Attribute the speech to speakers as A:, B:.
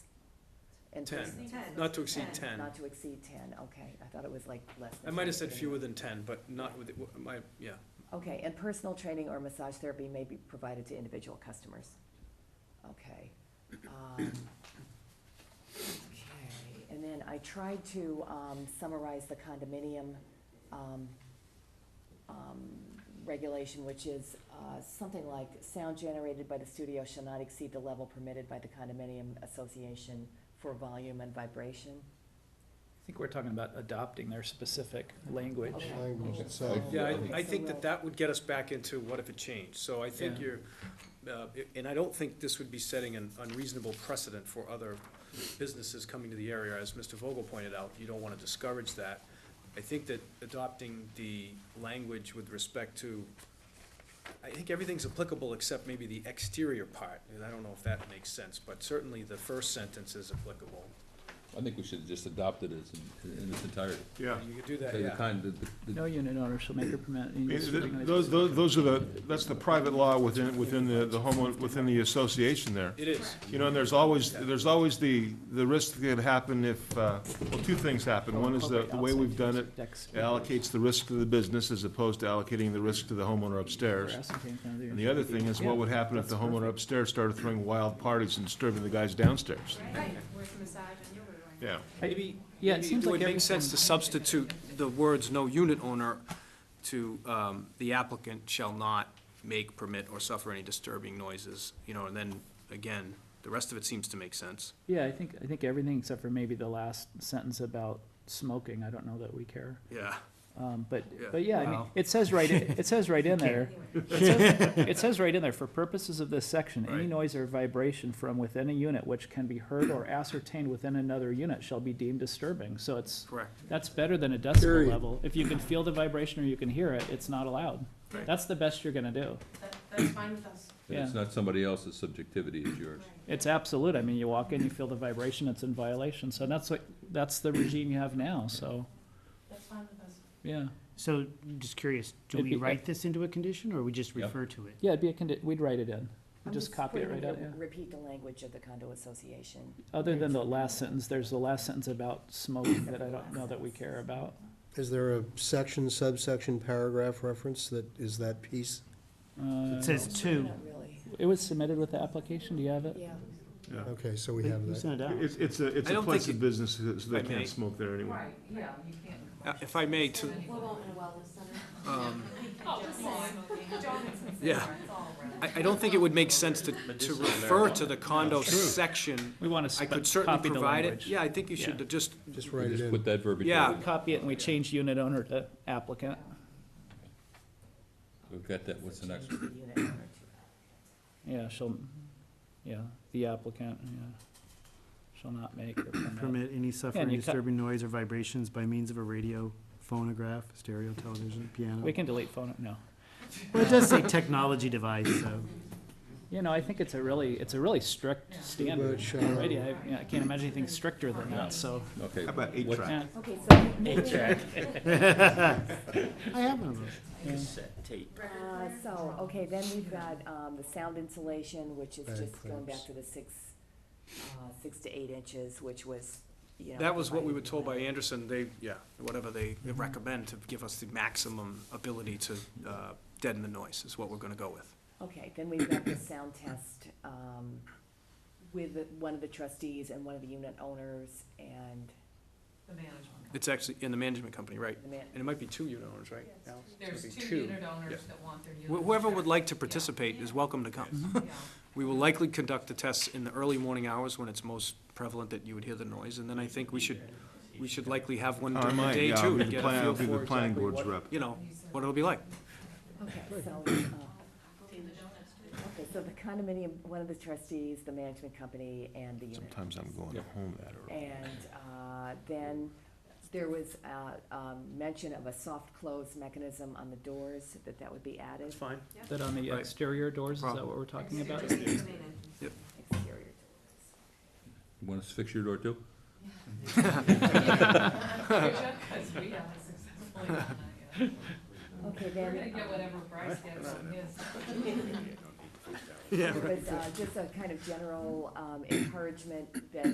A: and to
B: Ten.
A: exceed-
C: Ten.
B: Not to exceed
C: Ten.
B: ten.
A: Not to exceed ten, okay, I thought it was like less
B: I
A: than.
B: might have
A: 10,
B: said
A: but
B: fewer
A: anyway.
B: than ten, but not with, w- my, yeah.
A: Okay, and personal training or massage therapy may be provided to individual customers. Okay. um, Okay, and then I tried to um, summarize the condominium um, um, regulation, which is uh, something like, sound generated by the studio shall not exceed the level permitted by the condominium association for volume and vibration.
D: I think we're talking about adopting their specific language.
A: Okay.
E: Language itself.
B: Yeah,
A: Okay,
B: I, I
A: so
B: think
A: we'll-
B: that that would get us back into what if it changed, so I think
D: Yeah.
B: you're, uh, i- and I don't think this would be setting an unreasonable precedent for other businesses coming to the area, as Mr. Vogel pointed out, you don't wanna discourage that. I think that adopting the language with respect to, I think everything's applicable except maybe the exterior part, and I don't know if that makes sense, but certainly the first sentence is applicable.
F: I think we should just adopt it as, in- in its entirety.
E: Yeah.
B: You could do that,
F: The
B: yeah.
F: kind, the-
D: No
F: the-
D: unit owner shall make or permit. any
E: Those,
D: disorganized-
E: those those are the, that's the private law within, within the, the homeowner, within the association there.
B: It is,
E: You know, and there's always, there's always the, the risk that could happen if, uh, well, two things happen. One is the, the way we've done it
D: Decks.
E: allocates the risk to the business as opposed to allocating the risk to the homeowner upstairs.
D: Grass and things down there.
E: And the other thing is what would happen if the homeowner upstairs started throwing wild parties and disturbing the guys downstairs?
C: Right, where's the massage and your room?
E: Yeah.
B: Maybe,
D: Yeah, it
B: maybe
D: seems
B: it would
D: like
B: make sense to
D: everything-
B: substitute the words "no unit owner" to um, "the applicant shall not make, permit, or suffer any disturbing noises," you know, and then, again, the rest of it seems to make sense.
D: Yeah, I think, I think everything except for maybe the last sentence about smoking, I don't know that we care.
B: Yeah.
D: Um, but,
B: Yeah.
D: but yeah, I mean,
B: Wow.
D: it says right, it says right in there.
C: Anyway,
D: It says- It says right in there, for purposes of this section, any
B: Right.
D: noise or vibration from within a unit which can be heard or ascertained within another unit shall be deemed disturbing, so it's.
B: Correct.
D: That's better than a decibel level. If you can feel the vibration or you can hear it, it's not allowed.
B: Right.
D: That's the best you're gonna do.
C: that- That's fine with us.
D: Yeah.
F: it's not somebody else's subjectivity, it's yours.
C: Right.
D: It's absolute. I mean, you walk in, you feel the vibration, it's in violation, so that's what, that's the regime you have now, so,
C: That's fine with us.
D: yeah.
G: So, just curious, do
D: It'd
G: we
D: be-
G: write this into a condition, or we just
F: Yeah.
G: refer to it?
D: Yeah, it'd be a condi, we'd write it in.
A: I'm
D: Just copy it
A: putting
D: right
A: the-
D: out, yeah.
A: Repeat the language of the condo association.
D: Other than the last sentence, there's the last sentence about smoking that I don't know that we care about.
H: Is there a section, subsection, paragraph reference that is that piece?
D: Uh,
G: It says two.
A: Not really,
D: it was submitted with the application, do you have it?
A: yeah.
H: Okay, so we
G: You
H: have that.
G: sent it out.
E: It's, it's a, it's
B: I
E: a
B: don't
E: place
B: think
E: of business, so
B: I
E: they
B: may.
E: can't smoke there anyway.
C: yeah, you can't.
B: Uh, If I may, to, um, yeah, I, I don't think it would make sense to, to refer to the condo section.
D: We wanna
B: I
D: sp-
B: could certainly
D: copy the
B: provide it.
D: language.
B: Yeah, I think you should
D: Yeah.
B: just,
H: Just
F: We
H: write it
F: Just
H: in.
F: put that verbiage.
B: Yeah.
D: We copy it and we change unit owner to applicant.
F: We've got that, what's the next one?
A: Change the unit owner to-
D: Yeah, shall, yeah, the applicant, yeah, shall not make or permit.
G: Permit any
D: Yeah,
G: suffering,
D: and you cut-
G: disturbing noise or vibrations by means of a radio, phonograph, stereo, television, piano.
D: We can delete phone, no.
G: Well, it does say technology device, so.
D: You know, I think it's a really, it's a really strict standard
H: much, uh,
D: already. I, yeah, I can't imagine anything stricter than that, so.
F: Okay.
E: How about eight
F: what-
E: track?
D: yeah.
A: Okay, so moving
G: I have one of those.
A: Uh, so, okay, then we've got, um, the sound insulation, which is
H: Bag
A: just going back
H: clamps.
A: to the six, uh, six to eight inches, which was, you know.
B: that was what we were
A: provided
B: told by Anderson, they, yeah, whatever they recommend to give us the maximum ability to uh, deaden the noise is what we're gonna go with.
A: Okay, then we've got the sound test, um, with the- one of the trustees and one of the unit owners and
C: The management.
B: It's actually in the management company, right?
A: the man,
B: And it might be two unit owners, right? Al? It's gonna be
C: owners that want their
B: Wh- Whoever would like to participate is welcome to
E: Mm-hmm.
B: come. We will likely conduct the tests in the early morning hours when it's most prevalent that you would hear the noise, and then I think we should, we should likely have one
E: I
B: during the
E: might,
B: day
E: yeah, I'll
B: too,
E: be
B: to
E: the
B: get a
E: plan-
B: feel
E: I'll be the
B: for
E: planning
B: exactly
E: board's
B: what,
E: rep.
B: you know, what it'll be like.
A: okay, so, uh, okay, so the condominium, one of the trustees, the management company and the unit.
E: Sometimes I'm going
F: Yeah.
E: home that early.
A: And uh, then there was uh, um, mention of a soft close mechanism on the doors, that that would be added.
B: That's fine.
D: That on the
B: Right.
D: exterior doors, is that
B: Problem.
D: what we're talking about?
A: Exterior doors.
F: You Want us to fix your door too?
A: Okay, then,
C: whatever Bryce gets on his.
A: um, it was uh, just a kind of general um, encouragement that